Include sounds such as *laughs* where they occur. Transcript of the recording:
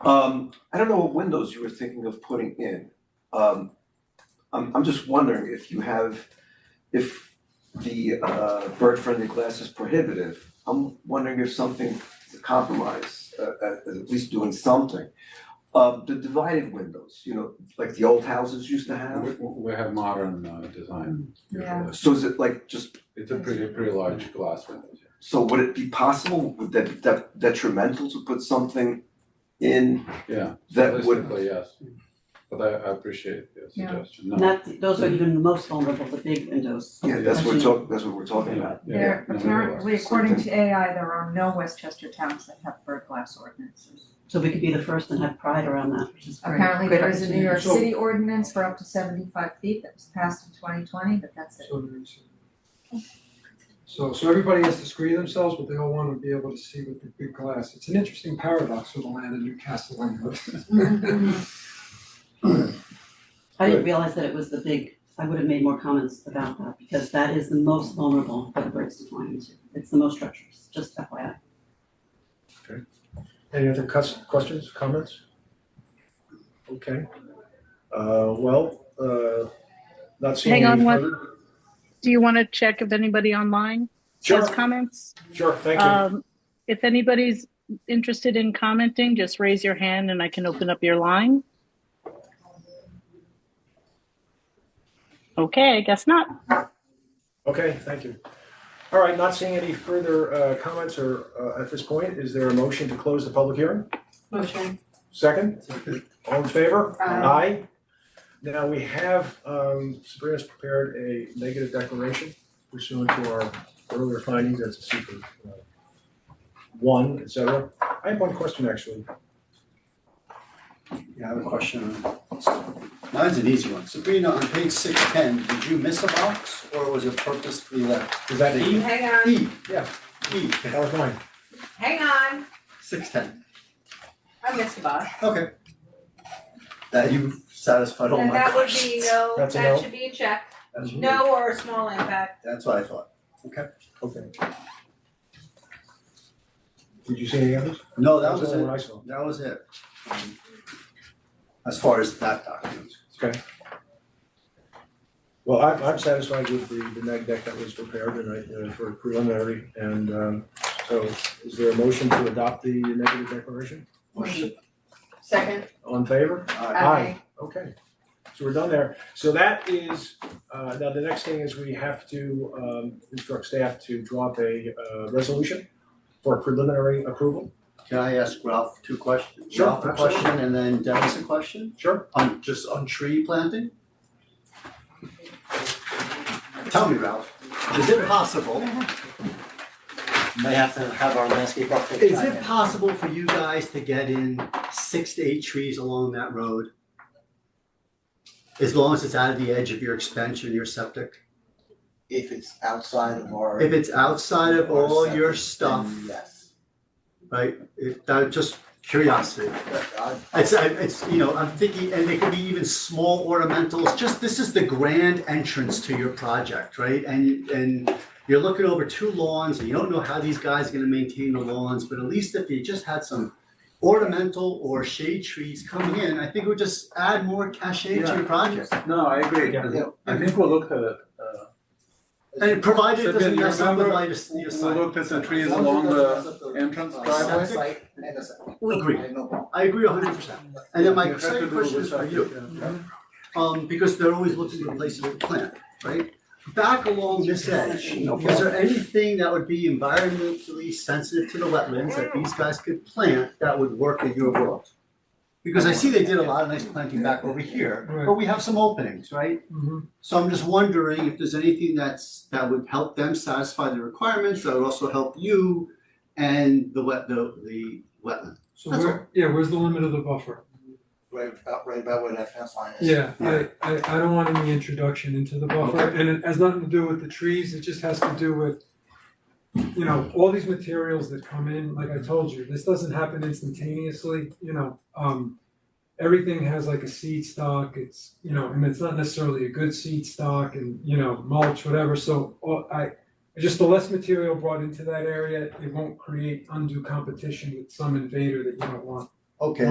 Um, I don't know what windows you were thinking of putting in. Um, I'm, I'm just wondering if you have, if the, uh, bird-friendly glass is prohibitive. I'm wondering if something is a compromise, uh, uh, at least doing something. Um, the divided windows, you know, like the old houses used to We have. we have modern uh design. Yeah. usually. So is it like just, It's a pretty, pretty large glass window. so would it be possible, would that, be de- detrimental to put something in yeah. that would? Realistically, yes, but I I appreciate your Yeah. suggestion, no. Not, those are even the most vulnerable, the big windows. Mm-hmm. Yeah, that's what we're talk, that's what we're talking about. Yeah, There, no, no, apparently, no. according to AI, there are no Westchester towns that have bird glass ordinances. So we could be the first and have pride around that, which is great. Apparently, Great there is a New opportunity. York So- City ordinance for up to seventy-five feet that was passed in twenty twenty, but that's it. *laughs* So, so everybody has to screen themselves, but they all wanna be able to see with the big glass. It's an interesting paradox for the land of Newcastle Landhouse. I didn't realize that it was the big, I would have made more comments about that, because that is the most vulnerable that birds to flying into. It's the most treacherous, just FYI. Any other cus- questions, comments? Okay, uh, well, uh, not seeing Hang on any one- further. Do you want to check if anybody online has Sure, comments? sure, thank you. Um, if anybody's interested in commenting, just raise your hand and I can open up your line. Okay, I guess not. Okay, thank you. All right, not seeing any further, uh, comments or, uh, at this point, is there a motion to close the public hearing? Motion. Second, all in favor? Aye. Now, we have, um, Sabrina's prepared a negative declaration pursuant to our earlier findings as a secret uh, one, et cetera. I have one question, actually. Yeah, I have a question. Mine's an easy one. Sabrina, on page six ten, did you miss a box or was it purposefully left? Is that E? Hang on, E, yeah, E, That was mine. hang on, six ten. I missed a box. Okay. That you Oh satisfied all And my that would questions. be no, That's a that no. should be a check, That's- no or a small impact. That's what I thought. Okay. Okay. Did you see any others? No, that was the only it. one I saw. That was it. Um, As far as that document. Okay. Well, I'm, I'm satisfied with the, the neg deck that was prepared and I, uh, for preliminary, and, um, so is there a motion to adopt the negative declaration? Motion. Second. All in favor? Uh, Aye. Okay, so we're done there. So that is, uh, now the next thing is we have to, um, instruct staff to drop a, uh, resolution for preliminary approval. Can I ask Ralph two questions? Sure, Ralph a absolutely. question and then Dennis a question? Sure. On, just on tree planting? Tell me, Ralph, is it possible? May have to have our landscape architect. Is chime it in. possible for you guys to get in six to eight trees along that road? As long as it's out of the edge of your expansion, your septic? If it's outside of our. If it's outside of our all your septic, stuff, then Yes. right, if, that, just curiosity. But I- It's, I- it's, you know, I'm thinking, and they could be even small ornamentals, just, this is the grand entrance to your project, right? And, and you're looking over two lawns, and you don't know how these guys are gonna maintain the lawns, but at least if you just had some ornamental or shade trees coming in, I think it would just add more cachet to your project. No, I agree, Yeah. I- I think we'll look at, uh, And provided it doesn't Sabrina, you mess up the remember- light of your we side. looked at the trees As long as along it doesn't the mess up entrance uh, driveway. Site and the site. Agree. I know. I agree hundred percent. And then You my have to second do question with is for that, you. yeah. um, because they're always looking for places to plant, right? Back along this edge, is there anything that would be environmentally sensitive to the wetlands that these guys could plant that would work in your world? Because I see they did a lot of nice planting back over here, but we have some openings, right? So I'm just wondering if there's anything that's, that would help them satisfy the requirements, that would also help you and the wet, the, the wetland. So That's where, yeah, where's the limit of the buffer? Right about, right about where that fence line is. Yeah, I, I, I don't want any introduction into the buffer, and it has nothing to do with the trees, it just has to do with, you know, all these materials that come in, like I told you, this doesn't happen instantaneously, you know, um, everything has like a seed stock, it's, you know, and it's not necessarily a good seed stock and, you know, mulch, whatever, so, all, I, just the less material brought into that area, it won't create undue competition with some invader that you don't want. Okay,